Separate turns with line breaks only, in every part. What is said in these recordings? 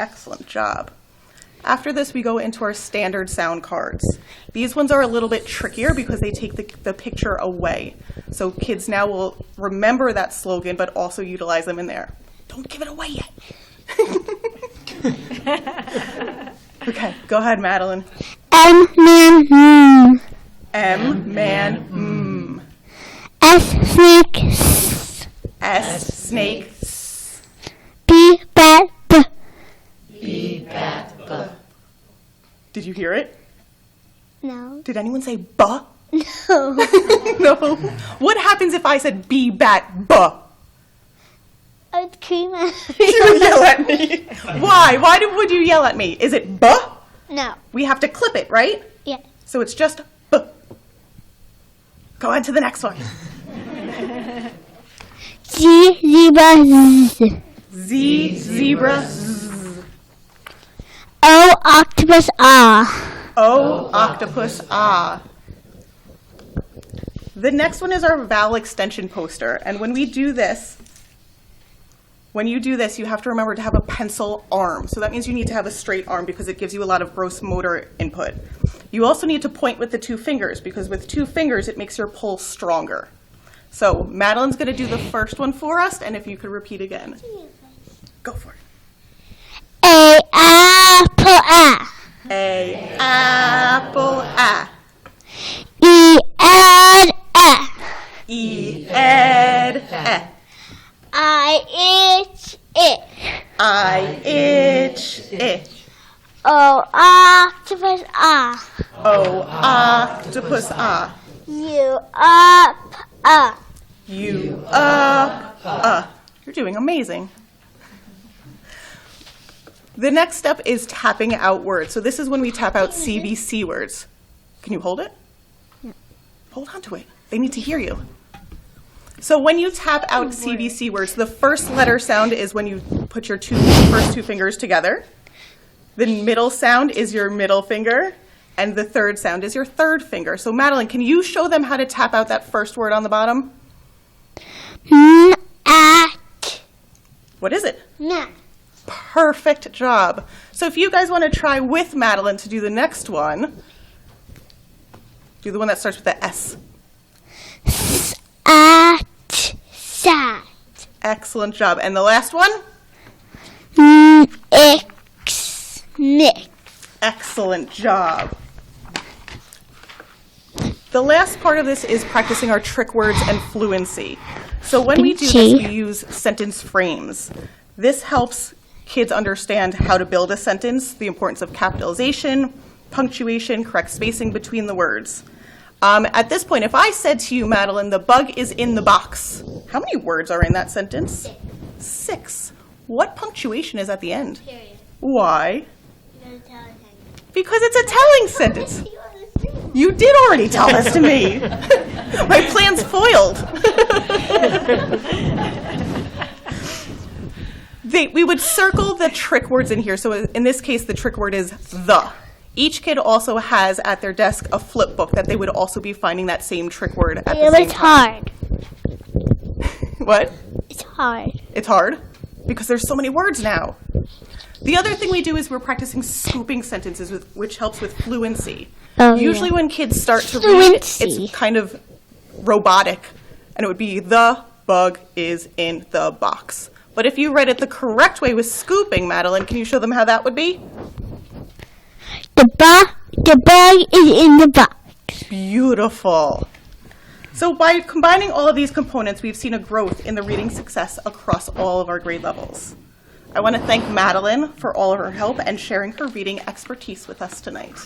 Excellent job. After this, we go into our standard sound cards. These ones are a little bit trickier because they take the, the picture away. So kids now will remember that slogan, but also utilize them in there. Don't give it away yet. okay, go ahead, Madeline.
M man hmm.
M man mm.
S snake s.
S snake s.
B bat b.
Did you hear it?
No.
Did anyone say buh?
No.
no. What happens if I said be bat buh?
Ice cream.
You yell at me. Why? Why do, would you yell at me? Is it buh?
no.
We have to clip it, right?
Yeah.
So it's just buh. Go on to the next one.
G zebra z.
Z zebra z.
O octopus ah.
O octopus ah. The next one is our vowel extension poster. And when we do this, when you do this, you have to remember to have a pencil arm. So that means you need to have a straight arm because it gives you a lot of gross motor input. You also need to point with the two fingers because with two fingers it makes your pull stronger. So Madeline's going to do the first one for us, and if you could repeat again, go for it.
A apple ah.
A apple ah.
E and ah.
E ed eh.
I itch it.
I E itch itch.
O octopus ah.
Oh octopus ah.
You up ah.
You up uh. You're doing amazing. The next step is tapping out words. So this is when we tap out CBC words. Can you hold it? Hold on to it. They need to hear you. So when you tap out CBC words, the first letter sound is when you put your two first two fingers together. The middle sound is your middle finger, and the third sound is your third finger. So Madeline, can you show them how to tap out that first word on the bottom?
N at
What is it?
nat.
Perfect job. So if you guys want to try with Madeline to do the next one, do the one that starts with the S.
at sat
Excellent job. And the last one?
x nick
Excellent job. The last part of this is practicing our trick words and fluency. So when we do this, we use sentence frames. This helps kids understand how to build a sentence, the importance of capitalization, punctuation, correct spacing between the words. Um, at this point, if I said to you, Madeline, the bug is in the box, how many words are in that sentence? Six. What punctuation is at the end?
Period.
Why? Because it's a telling sentence.
It's
You did already tell this to me. My plan's foiled. they, we would circle the trick words in here. So in this case, the trick word is the. Each kid also has at their desk a flip book that they would also be finding that same trick word at the same time.
hard.
What?
It's hard.
It's hard because there's so many words now. The other thing we do is we're practicing scooping sentences, with, which helps with fluency.
Oh,
Usually, when kids start to read,
Fluency.
it's kind of robotic, and it would be the bug is in the box. But if you read it the correct way with scooping, Madeline, can you show them how that would be?
The bug, the bug is in the box.
Beautiful. So by combining all of these components, we've seen a growth in the reading success across all of our grade levels. I want to thank Madeline for all of her help and sharing her reading expertise with us tonight.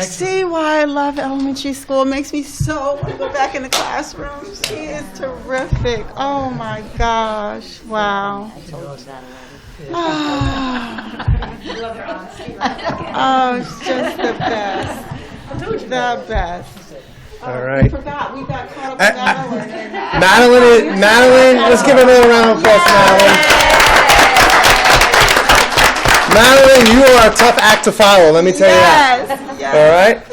See why I love elementary school. It makes me so want to go back in the classroom. She is terrific. Oh my gosh. Wow. Ah. Oh, it's just the best. The best.
All right.
Forgot, we got caught up in
I- I-
that one.
Madeline, is- Madeline, let's give another round of applause, Madeline. Madeline, you are a tough act to follow, let me tell you that.
Yes, yes.
All right?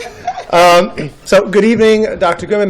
Um, so, good evening, Dr. Goodman,